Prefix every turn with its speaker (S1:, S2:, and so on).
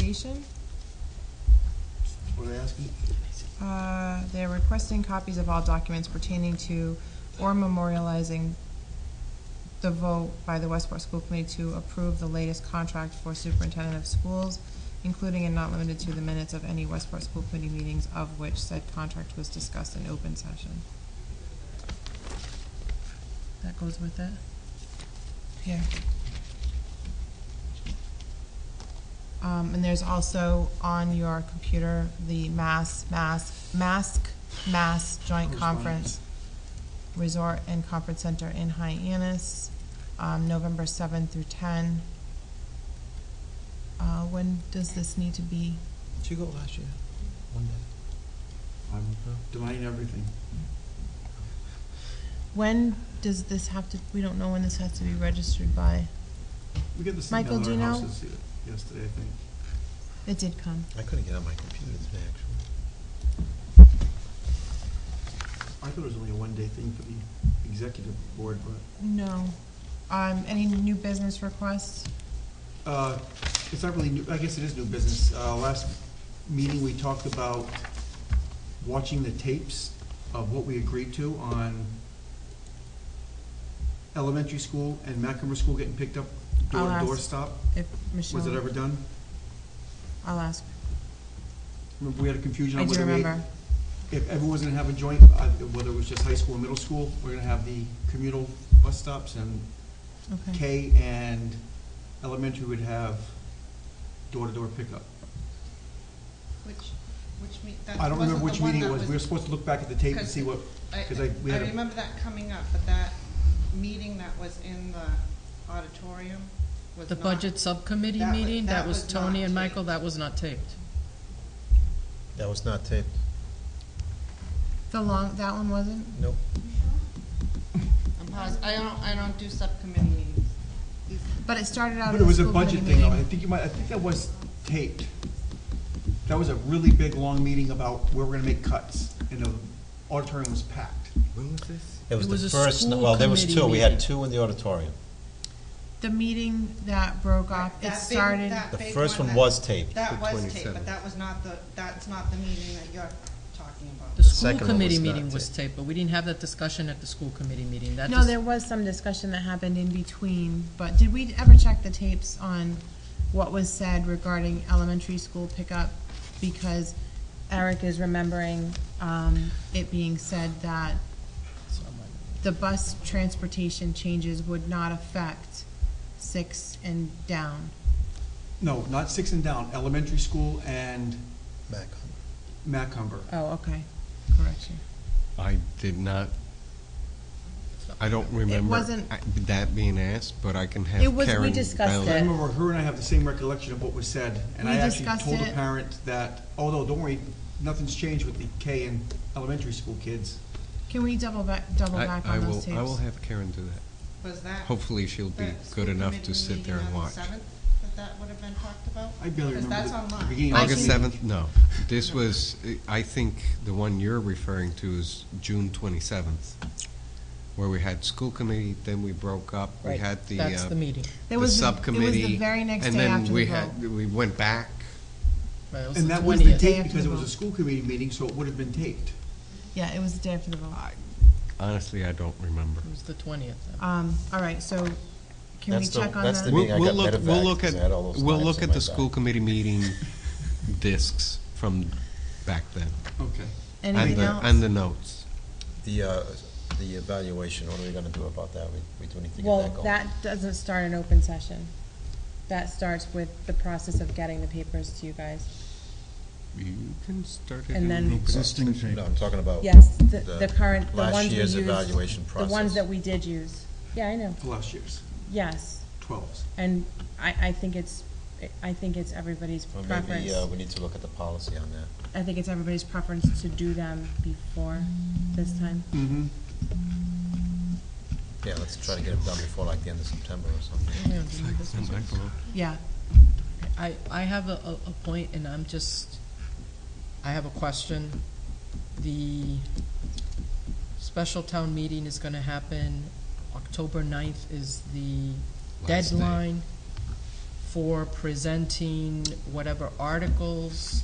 S1: Station.
S2: What are they asking?
S1: Uh, They're requesting copies of all documents pertaining to or memorializing the vote by the Westport School Committee to approve the latest contract for superintendent of schools, including and not limited to the minutes of any Westport School Committee meetings of which said contract was discussed in open session. That goes with it? Here. Um, and there's also on your computer, the Mass, Mass, Mask, Mass Joint Conference Resort and Conference Center in Hyannis, um, November seventh through ten. Uh, when does this need to be?
S3: Did you go last year? One day.
S2: I'm denying everything.
S1: When does this have to, we don't know when this has to be registered by.
S2: We got this thing
S1: Michael,
S2: down
S1: do
S2: at
S1: you
S2: our
S1: know?
S2: houses yesterday, I think.
S1: It did come.
S3: I couldn't get on my computer today, actually.
S2: I thought it was only a one-day thing for the executive board, but,
S1: No. Um, any new business requests?
S2: uh, it's not really new, I guess it is new business. Uh, last meeting, we talked about watching the tapes of what we agreed to on elementary school and Macamore School getting picked up,
S1: I'll
S2: door-to-door
S1: ask
S2: stop.
S1: If Michelle.
S2: Was it ever done?
S1: I'll ask.
S2: Remember, we had a confusion
S1: I
S2: on
S1: do
S2: whether we,
S1: remember.
S2: if everyone's gonna have a joint, uh, whether it was just high school or middle school, we're gonna have the communal bus stops and
S1: Okay.
S2: K and elementary would have door-to-door pickup.
S4: Which, which me, that
S2: I don't
S4: wasn't
S2: remember
S4: the
S2: which
S4: one
S2: meeting it
S4: that
S2: was,
S4: was.
S2: we were supposed to look back at the tape and see what, because I, we
S4: I
S2: had, a-
S4: remember that coming up, but that meeting that was in the auditorium was
S5: The
S4: not-
S5: budget subcommittee
S4: That was-
S5: meeting,
S4: that
S5: that was
S4: was not
S5: Tony and
S4: taped.
S5: Michael, that was not taped.
S3: That was not taped.
S1: The long, that one wasn't?
S3: Nope.
S4: I'm pos- I don't, I don't do subcommittee meetings.
S1: But it started out
S2: but
S1: as
S2: it
S1: a
S2: was a
S1: school committee
S2: budget thing, though, I
S1: meeting.
S2: think you might, I think that was taped. That was a really big, long meeting about where we're gonna make cuts, and the auditorium was packed.
S6: When was this?
S3: It was
S5: It was
S3: the
S5: a
S3: first,
S5: school
S3: well, there was
S5: committee
S3: two, we had
S5: meeting.
S3: two in the auditorium.
S1: The meeting that broke
S5: Uh,
S1: off, it
S4: That big-
S1: started,
S4: that
S3: The
S4: big
S3: first one
S4: that-
S3: was taped.
S4: That
S6: The
S4: was taped,
S6: 27th.
S4: but that was not the, that's not the meeting that you're talking about.
S5: The school
S6: second one was
S5: committee
S6: not
S5: meeting was
S6: taped.
S5: taped, but we didn't have that discussion at the school committee meeting. That
S1: no,
S5: dis-
S1: there was some discussion that happened in between, but did we ever check the tapes on what was said regarding elementary school pickup? Because Eric is remembering, um, it being said that the bus transportation changes would not affect six and down.
S2: No, not six and down, elementary school and
S3: Mac.
S2: Macumber.
S1: Oh, okay, correction.
S6: I did not, I don't remember.
S1: wasn't-
S6: I- That being asked, but I can have
S1: It was- we
S6: Karen
S1: discussed
S6: dial
S2: I
S1: it.
S2: remember her and I have the same recollection of what was said, and
S1: We
S2: I actually
S1: discussed
S2: told a
S1: it.
S2: parent that, although, don't worry, nothing's changed with the K and elementary school kids.
S1: Can we double back, double
S6: I-
S1: back
S6: I
S1: on
S6: will-
S1: those tapes?
S6: I will have Karen do that.
S4: Was that?
S6: Hopefully she'll be
S4: that
S6: good
S4: school
S6: enough to
S4: committee
S6: sit there
S4: meeting
S6: and
S4: on the
S6: watch.
S4: 7th, That that would have been talked about?
S2: I barely remember.
S4: Because that's
S2: the- the
S4: online.
S2: beginning of
S6: August
S2: meeting.
S6: seventh, no. This was, I think the one you're referring to is June twenty-seventh, where we had school committee, then we broke up, we
S5: Right,
S6: had the,
S5: That's
S6: uh,
S5: the meeting.
S1: There
S6: the
S1: was the- It was
S6: subcommittee,
S1: the very next
S6: and
S1: day
S6: then
S1: after
S6: we
S1: the vote.
S6: had- We went back,
S5: Right, it was
S2: And
S5: the
S2: that was the
S5: 20th.
S2: tape
S1: after
S2: because
S1: the
S2: it was a
S1: vote.
S2: school committee meeting, so it would have been taped.
S1: Yeah, it was the day after the vote.
S6: honestly, I don't remember.
S5: It was the twentieth.
S1: Um, all right, so can we
S3: That's the-
S1: check on
S3: that's
S1: that?
S3: the
S6: We'll
S3: meeting I
S6: we'll
S3: got
S6: look.
S3: medevac
S6: We'll look
S3: because
S6: at,
S3: I had all those
S6: we'll
S3: knives
S6: look
S3: in
S6: at
S3: my
S6: the school
S3: back.
S6: committee meeting discs from back then.
S2: Okay.
S1: Anything
S6: and the,
S1: else?
S6: And the notes.
S3: The, uh, the evaluation, what are we gonna do about that? We, we do anything
S1: Well, that doesn't start an open session. That starts with the process of getting the papers to you guys.
S6: You can start it
S1: And
S6: in
S1: then-
S6: an open
S7: Existing
S6: session.
S3: No, I'm talking about.
S1: Yes, the, the
S3: The
S1: current, the
S3: last
S1: ones we
S3: year's
S1: used,
S3: evaluation
S1: The ones
S3: process.
S1: that we did use. Yeah, I know,
S2: For last year's,
S1: yes.
S2: twelves.
S1: And I, I think it's, I think it's everybody's
S3: Or
S1: preference.
S3: maybe, uh, we need to look at the policy on that.
S1: I think it's everybody's preference to do them before this time.
S2: Mm-hmm.
S3: Yeah, let's try to get it done before like the end of September or something.
S6: And I vote.
S1: Yeah,
S5: I, I have a, a, a point, and I'm just, I have a question. The special town meeting is gonna happen, October ninth is the
S6: Last day.
S5: deadline for presenting whatever articles